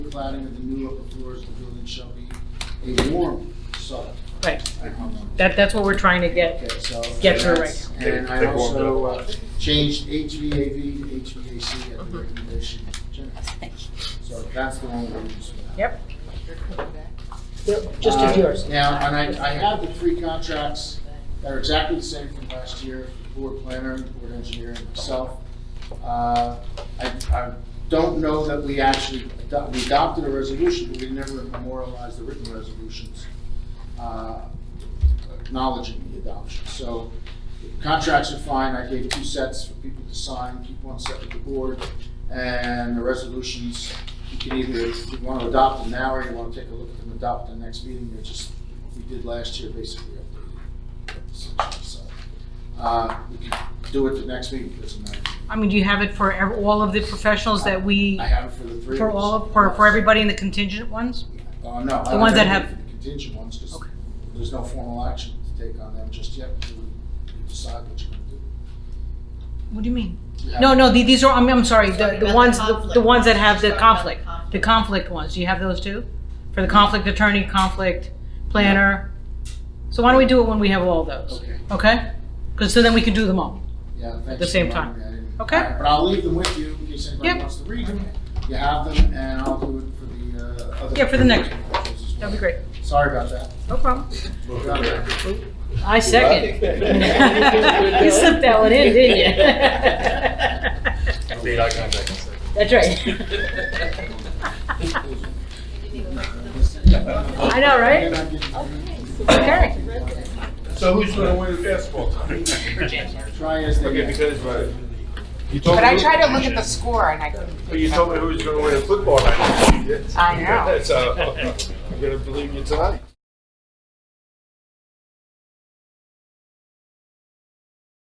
plating of the new upper floors of the building shall be a warm sod. Right, I don't know. that, that's what we're trying to get. Okay, so. Get through that's- right now. And I Take- take one also down. uh, changed HVAV to HVAC at the recommendation. of Jim. So that's the one we're using. Yep. Just Uh, as yours. Now, and I, I have the three contracts that are exactly the same from last year, the board planner, the board engineer, and myself. Uh, I, I don't know that we actually, ado- we adopted a resolution, but we never memorialized the written resolutions uh, acknowledging the adoption. So contracts are fine, I gave two sets for people to sign, keep one set with the board, and the resolutions, you can either, if you want to adopt them now, or you want to take a look at them, adopt them next meeting, they're just, we did last year, basically updated. So, uh, We can do it the next meeting, doesn't matter. I mean, do you have it for ev- all of the professionals that we, I have it for the three. for of us. all, of- for, for everybody in the contingent ones? Uh, no. I The don't ones that it have- for the Contingent ones, because Okay. there's no formal action to take on them just yet, until we decide what you're going to do. What do you mean? You have- No, no, the- these are, I'm, I'm sorry, the, the about ones, the the- the conflict. ones that have the She's talking conflict, about the conflict ones, do you have those too? For the conflict attorney, conflict planner? So why don't we do it when we have all those, Okay. okay? Because, so then we can do them all. Yeah, thanks. the same for time. reminding me. I didn't- Okay. All right, But I'll leave them with you in case anybody Yep. wants to read them. You have them, and I'll do it for the uh, other. Yeah, for the next one. proposals as well. That'd be great, Sorry about that. no problem. Got it. I second. You It's slipped that one in, didn't you? Made eye contact. That's right. I know, right? Okay. So who's gonna win the basketball? Try as they Okay, may. because, uh, you told But I me- tried to look at the score and I couldn't. But you told me who was gonna win the football. I I know. So, I'm gonna believe you tonight.